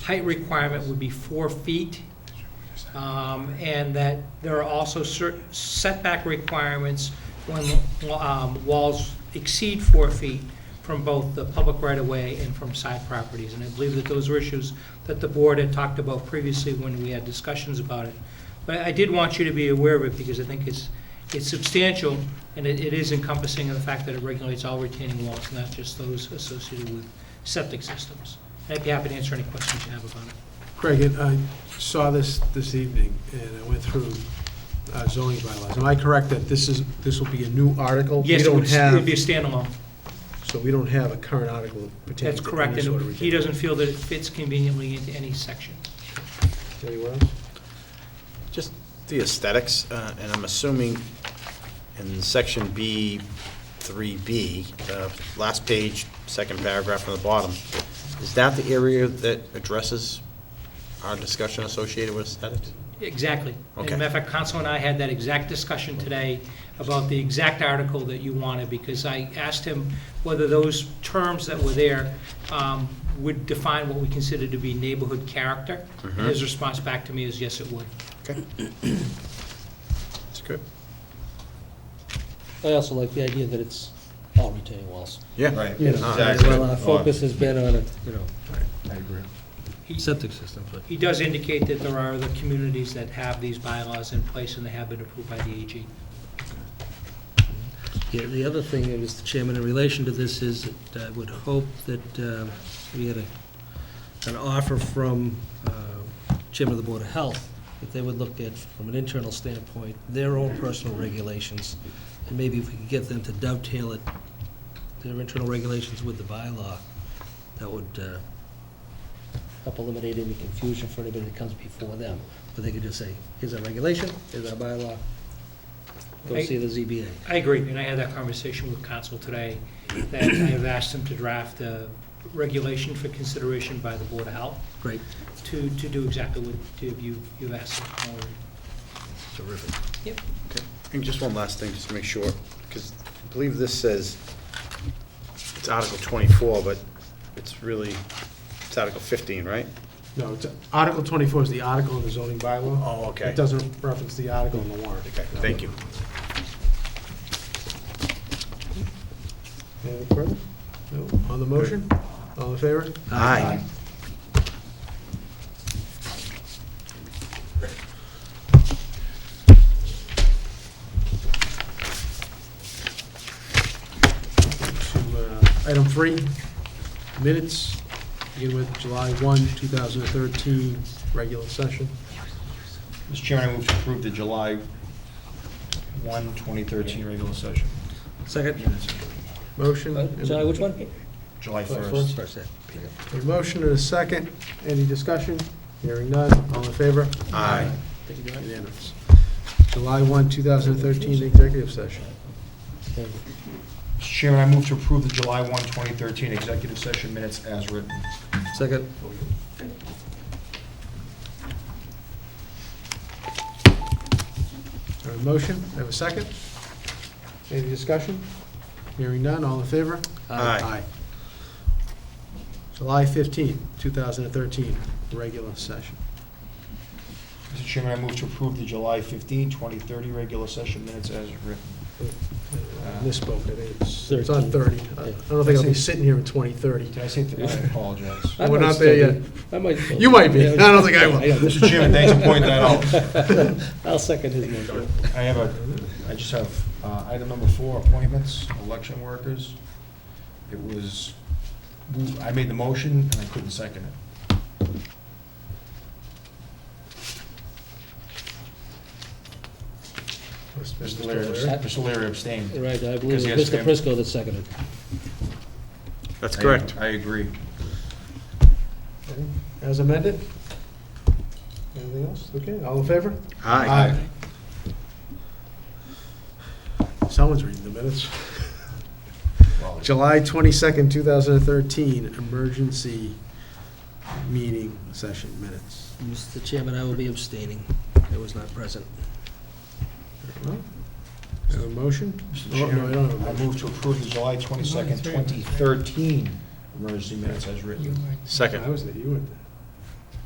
height requirement would be four feet, um, and that there are also cer- setback requirements when um, walls exceed four feet from both the public right-of-way and from side properties. And I believe that those were issues that the board had talked about previously when we had discussions about it. But I did want you to be aware of it, because I think it's, it's substantial, and it it is encompassing of the fact that it regulates all retaining walls, not just those associated with septic systems. I'd be happy to answer any questions you have about it. Craig, and I saw this this evening, and I went through uh, zoning bylaws. Am I correct that this is, this will be a new article? Yes, it We don't would it would be a have, standalone. so we don't have a current article pertaining That's to correct, any sort of and he retention. doesn't feel that it fits conveniently into any section. Anyone else? Just the aesthetics, uh, and I'm assuming in section B, 3B, uh, last page, second paragraph from the bottom, is that the area that addresses our discussion associated with aesthetics? Exactly. And Okay. matter of fact, Council and I had that exact discussion today about the exact article that you wanted, because I asked him whether those terms that were there um, would define what we consider to be neighborhood character. And his response back to me is, yes, it would. Okay. That's good. I also like the idea that it's all retaining walls. Yeah. Right. You know, well, our Exactly. focus has been on, a, you know, I agree. He- septic system, but. He does indicate that there are other communities that have these bylaws in place, and they have been approved by the AG. Yeah, the other thing, uh, Mr. Chairman, in relation to this is, that I would hope that uh, we had a, an offer from uh, Chairman of the Board of Health, that they would look at, from an internal standpoint, their own personal regulations, and maybe if we could get them to dovetail it, their internal regulations with the bylaw, that would uh, help eliminate any confusion for anybody that comes before them. But they could just say, here's our regulation, here's our bylaw, go I- see the ZBA. I agree, and I had that conversation with council today, that I have asked him to draft a regulation for consideration by the Board of Health Great. to, to do exactly what you, you've asked him for. Terrific. Yep. Okay. And just one last thing, just to make sure, because I believe this says, it's Article 24, but it's really, it's Article 15, right? No, it's- Article 24 is the article in the zoning bylaw. Oh, okay. It doesn't reference the article in the warrant. Okay, thank you. Anything further? No? On the motion? All in favor? Aye. to uh, item three, minutes, begin with July 1, 2013, regular session. Mr. Chairman, I move to approve the July 1, 2013 regular session. Second. Motion? and- Uh, Sorry, which one? July July 1st. First, yeah. A motion and a second. Any discussion? Hearing none. All in favor? Aye. Unanimous. July 1, 2013, executive session. Mr. Chairman, I move to approve the July 1, 2013 executive session minutes as written. Second. I Have a motion? I Have a second? Any discussion? Hearing none. All in favor? Aye. July 15, 2013, regular session. Mr. Chairman, I move to approve the July 15, 2030 regular session minutes as written. Uh, Misspoke, I think it's, it's on 30. I I don't think I'll be sitting here in 2030. Did I say, th- I apologize. I We're might not still there be- I might still You might be. Yeah, I don't think I will. know. Mr. Chairman, thanks for pointing that out. I'll second his motion. I have a, I just have uh, item number four, appointments, election workers. It was, I made the motion and I couldn't second it. Mr. Leary, Mr. Leary abstained. Right, I believe Because it's he Mr. has Prisco that seconded. That's I- correct. I agree. As amended? Anything else? Okay, all in favor? Aye. Someone's reading the minutes. Well, July 22nd, 2013, emergency meeting session minutes. Mr. Chairman, I will be abstaining. I was not present. Well, Is there a motion? Mr. Oh, no, I don't have Chairman, a I motion. move to approve the July 22nd, 2013 emergency minutes as written. Second. I was there, you were there.